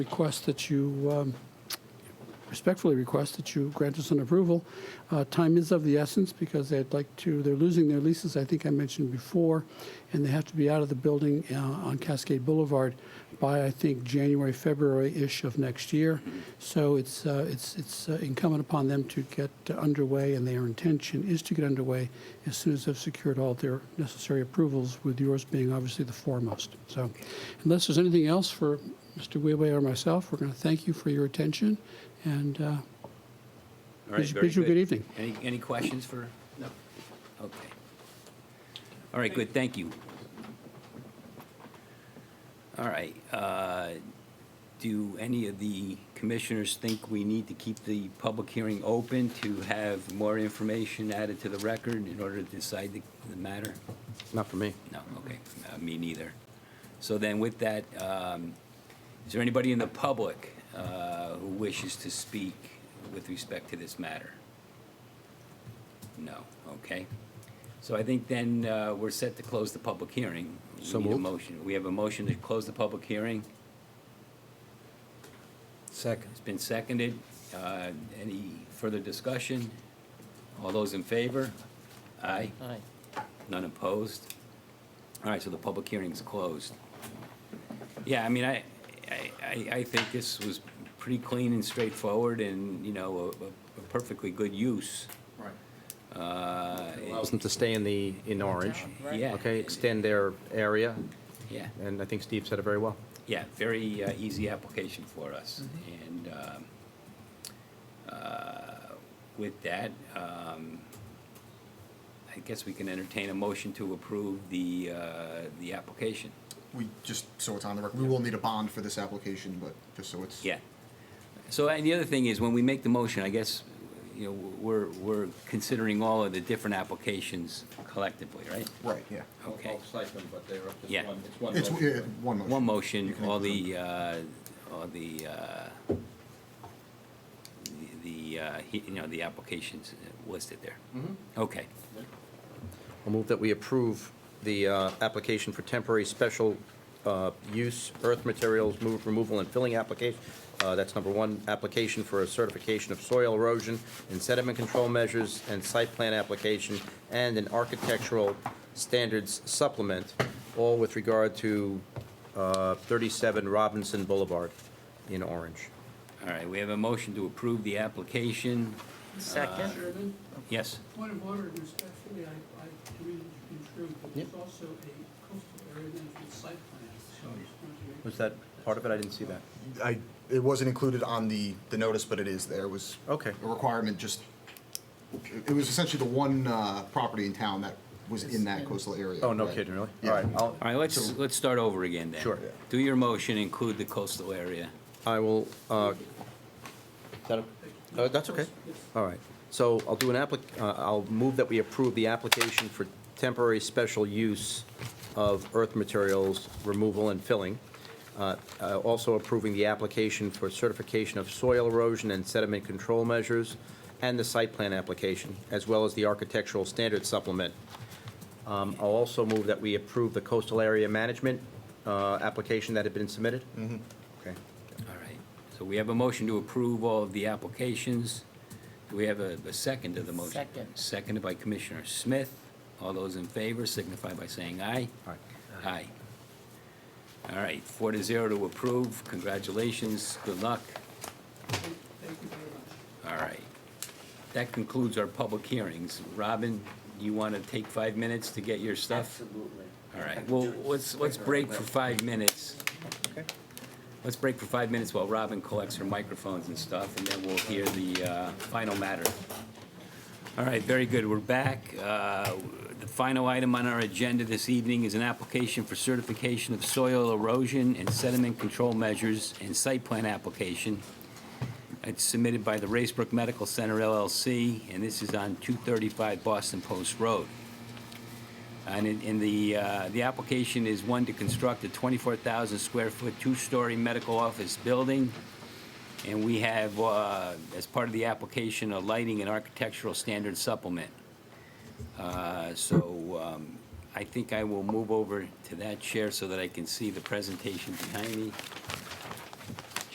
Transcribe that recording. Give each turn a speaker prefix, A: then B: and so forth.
A: Request that you, um, respectfully request that you grant us an approval. Uh, Time is of the essence because they'd like to, they're losing their leases, I think I mentioned before, and they have to be out of the building uh, on Cascade Boulevard by, I think, January, February-ish of next year. So it's, uh, it's it's uh, incumbent upon them to get uh, underway, and their intention is to get underway as soon as they've secured all their necessary approvals, with yours being obviously the foremost. So unless there's anything else for Mr. Weiwei or myself, we're going to thank you for your attention, and uh,
B: All right,
A: Wish-
B: very
A: wish you a good evening.
B: Any, any questions for? No. Okay. All right, good, thank you. All right, uh, do any of the commissioners think we need to keep the public hearing open to have more information added to the record in order to decide the the matter?
C: Not for me.
B: No, okay, Uh, me neither. So then with that, um, is there anybody in the public uh, who wishes to speak with respect to this matter? No, okay. So I think then uh, we're set to close the public hearing. We
C: So
B: need a
C: moved.
B: motion. We have a motion to close the public hearing.
C: Second.
B: It's been seconded. Uh, Any further discussion? All those in favor? Aye.
D: Aye.
B: None opposed? All right, so the public hearing's closed. Yeah, I mean, I, I- I, I think this was pretty clean and straightforward and, you know, a a perfectly good use. Uh,
D: Right.
C: Allows them to stay in the, in orange.
D: Right.
B: Yeah.
C: Okay, extend their area,
B: Yeah,
C: and I think Steve said it very well.
B: yeah, very uh, easy application for us. And um, uh, with that, um, I guess we can entertain a motion to approve the, uh, the application.
E: We just, so it's on the record, we will need a bond for this application, but just so it's.
B: Yeah. So, and the other thing is, when we make the motion, I guess, you know, we're, we're considering all of the different applications collectively, right?
E: Right, yeah.
B: Okay.
F: but they're up
B: Yeah.
F: to one, it's one.
E: It's,
F: motion.
E: yeah, one motion.
B: One motion,
E: You can
B: all
E: include
B: the, uh, all the, uh, the, uh, he- you know, the applications listed there. Okay.
C: I'll move that we approve the uh, application for temporary special uh, use earth materials move, removal and filling application. Uh, That's number one, application for a certification of soil erosion and sediment control measures and site plan application and an architectural standards supplement, all with regard to uh, 37 Robinson Boulevard in Orange.
B: All right, we have a motion to approve the application.
D: Second?
A: Uh, Chairman,
B: Yes?
A: point of order, respectfully, I, I believe it's been true, but there's also a coastal area management site plan, so I just wanted to make
C: Was that part of it? I didn't see that.
E: the- I, it wasn't included on the, the notice, but it is there, It was.
C: Okay.
E: A requirement, just, it was essentially the one, uh, property in town that was in that coastal area.
C: Oh, no
E: right?
C: kidding, really?
E: Yeah.
C: All right, I'll-
B: All right, let's, let's start over again then.
C: Sure.
B: Do your motion include the coastal area?
C: I will, uh, is that a- uh, that's okay. All right. So I'll do an applic, uh, I'll move that we approve the application for temporary special use of earth materials removal and filling. Uh, uh, Also approving the application for certification of soil erosion and sediment control measures and the site plan application, as well as the architectural standard supplement. Um, I'll also move that we approve the coastal area management uh, application that had been submitted. Mm-hmm. Okay.
B: All right, so we have a motion to approve all of the applications. Do we have a, a second to the motion?
D: Second.
B: Seconded by Commissioner Smith. All those in favor signify by saying aye.
C: All right.
B: Aye. All right, four to zero to approve. Congratulations, good luck.
A: Thank you very much.
B: All right. That concludes our public hearings. Robin, you want to take five minutes to get your stuff?
F: Absolutely.
B: All right, well, let's, let's break for five minutes. Let's break for five minutes while Robin collects her microphones and stuff, and then we'll hear the uh, final matter. All right, very good, we're back. Uh, The final item on our agenda this evening is an application for certification of soil erosion and sediment control measures and site plan application. It's submitted by the Racebrook Medical Center LLC, and this is on 235 Boston Post Road. And in, in the, uh, the application is one to construct a 24,000 square foot, two-story medical office building. And we have, uh, as part of the application, a lighting and architectural standard supplement. Uh, So um, I think I will move over to that chair so that I can see the presentation behind me.